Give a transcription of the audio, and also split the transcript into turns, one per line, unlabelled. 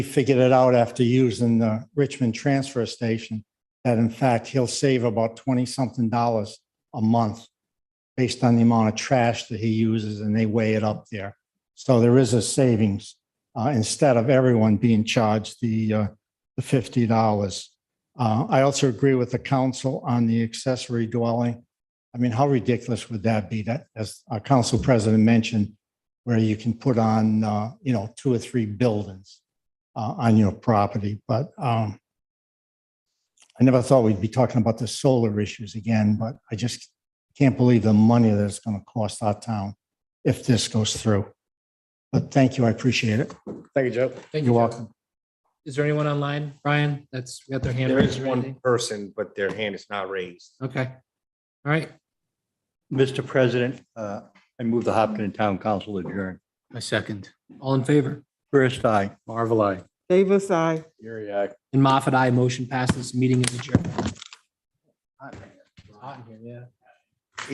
figured it out after using the Richmond transfer station, that in fact, he'll save about 20-something dollars a month based on the amount of trash that he uses and they weigh it up there. So there is a savings, uh, instead of everyone being charged the, uh, the fifty dollars. Uh, I also agree with the council on the accessory dwelling. I mean, how ridiculous would that be that, as our council president mentioned, where you can put on, uh, you know, two or three buildings uh, on your property, but, um, I never thought we'd be talking about the solar issues again, but I just can't believe the money that it's going to cost our town if this goes through. But thank you, I appreciate it.
Thank you, Joe.
Thank
You're
you, Joe.
welcome.
Is there anyone online, Brian, that's got their hand?
There
raised
is
or
one
anything?
person, but their hand is not raised.
Okay. All right.
Mr. President, uh, I move the Hopkinton Town Council adjourn.
My second. All in favor?
First, I.
Marvel, I.
Davis, I.
And Moffat, I. Motion passes. Meeting is adjourned. Hot in here, yeah.